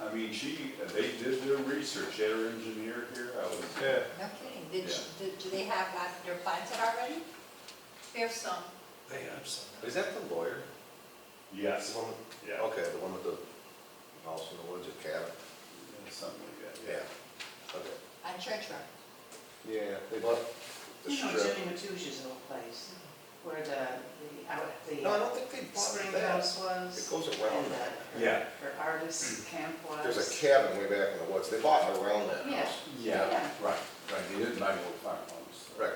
I mean, she, they did their research, they had her engineer here, I was, Yeah, No kidding, did, you- do- do they have uh, that, they're planted already? There's some, They have some. is that the lawyer? yes, The one with- yeah, Okay, the one with the house in the woods, a cabin? something like that, yeah. Okay. On Church Road? Yeah, they bought the You know, strip. Jimmy Matush's old place, where the, the, out, the No, I uh, don't think they spring bought that. house It was. goes around and that. the- Yeah. Her artist camp was. There's a cabin way back in the woods, they bought around that house. Yeah, Yeah. right, right, they did nine old farm homes. Right,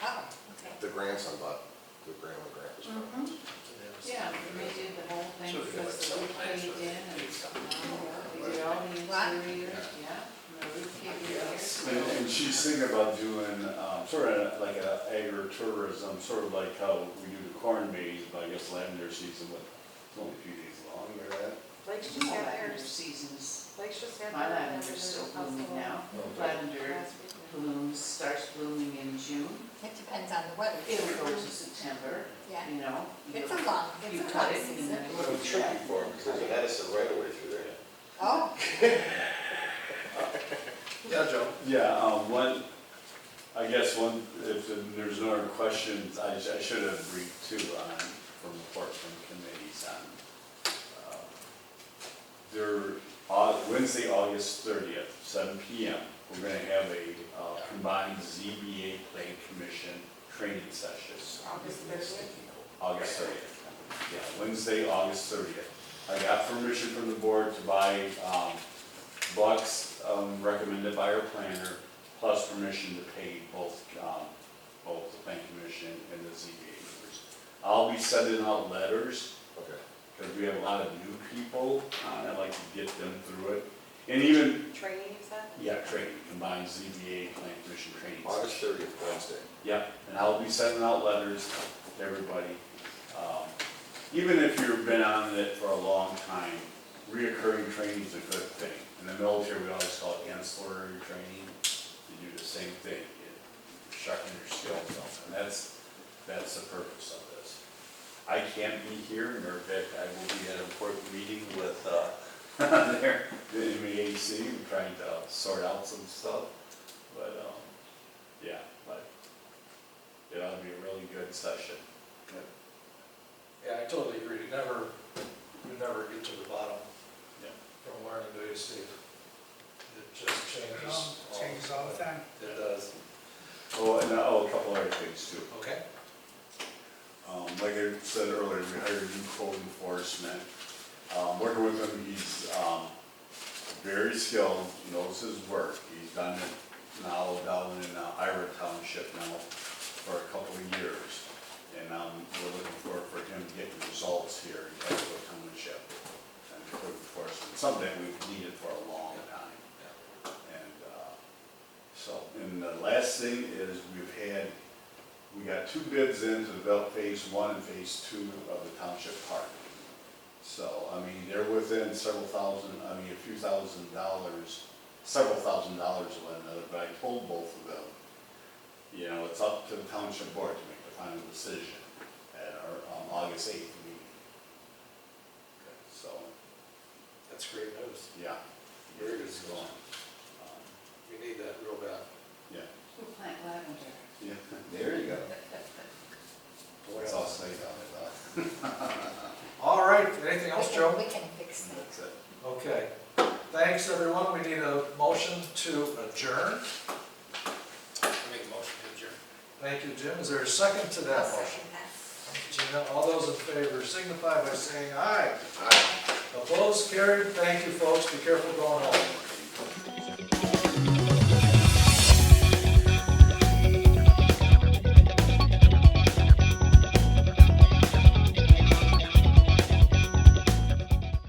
Oh, okay. the grandson bought, the grandma, grandpa's. farm. Mhm. Yeah, we redid the whole thing So they got because the some roof plans caved for in it. and, oh, yeah, we did all the What? interior, yeah, and the roof caved in. there, so- And, and she's thinking about doing, um, sort of like a agritourism, sort of like how we do the corn maze, but I guess lavender season, but it's only a few days long, or that. Lakes just All had that in theirs, seasons. Lakes just had My their lavender's still blooming now. Lavender Last weekend. blooms, starts blooming in June. It depends on the weather. It'll go to September, Yeah, you know. it's you'll- a long, You it's a long cut it and season. then. What a tricky farm, because there's a Madison right away through there. Oh, Yeah, Joe. Yeah, um, one, I guess one, if there's no other questions, I, sh- I should have read two on, from reports from committees on, uh, their, Au- Wednesday, August thirtieth, seven P M, we're gonna have a uh, combined ZBA plan commission training session. August thirtieth. August thirtieth. Yeah, Wednesday, August thirtieth. I got permission from the board to buy, um, bucks, um, recommended by our planner, plus permission to pay both, um, both the plan commission and the ZBA members. I'll be sending out letters, Okay. because we have a lot of new people, and I'd like to get them through it. And even, Training, you said? yeah, training, combined ZBA, plan commission training. August thirtieth, Wednesday. Yep, and I'll be sending out letters to everybody. Um, Even if you've been on it for a long time, reoccurring training is a good thing. In the military, we always call it ancillary training. You do the same thing, you sharpen your skills up, and that's, that's the purpose of this. I can't be here, nor Vic, I will be at an important meeting with, uh, there, the MAAC, we're trying to sort out some stuff, but, um, yeah, but it ought to be a really good session. Yeah, I totally agree. You never, you never get to the bottom Yeah. from learning to be safe. It just changes. Um, Changes all the time. It does. Oh, and, oh, a couple other things too. Okay. Um, like I said earlier, we hired a new code enforcement. Um, working with him, he's, um, very skilled, knows his work. He's done it now down in uh, Ira Township now for a couple of years. And, um, we're looking for, for him to get results here in Casco Township and code enforcement, something we've needed for a long time. And uh, so, and the last thing is we've had, we got two bids in to develop phase one and phase two of the township park. So, I mean, they're within several thousand, I mean, a few thousand dollars, several thousand dollars of one another, but I told both of them, you know, it's up to the township board to make the final decision at our um, August eighth meeting. So, That's great news. yeah. Very good. It's going. Um, We need that real bad. Yeah. We'll plant lavender. Yeah. There you go. That's all I say about it, All right, anything we else, can, Joe? we can fix uh, that. that's it. Okay. Thanks, everyone. We need a motion to adjourn. Make a motion to adjourn. Thank you, Jim. Is there a second to that I'll motion? second that. Gina, all those in favor signify by saying aye. Aye. Opposed, carried, thank you, folks, be careful going home.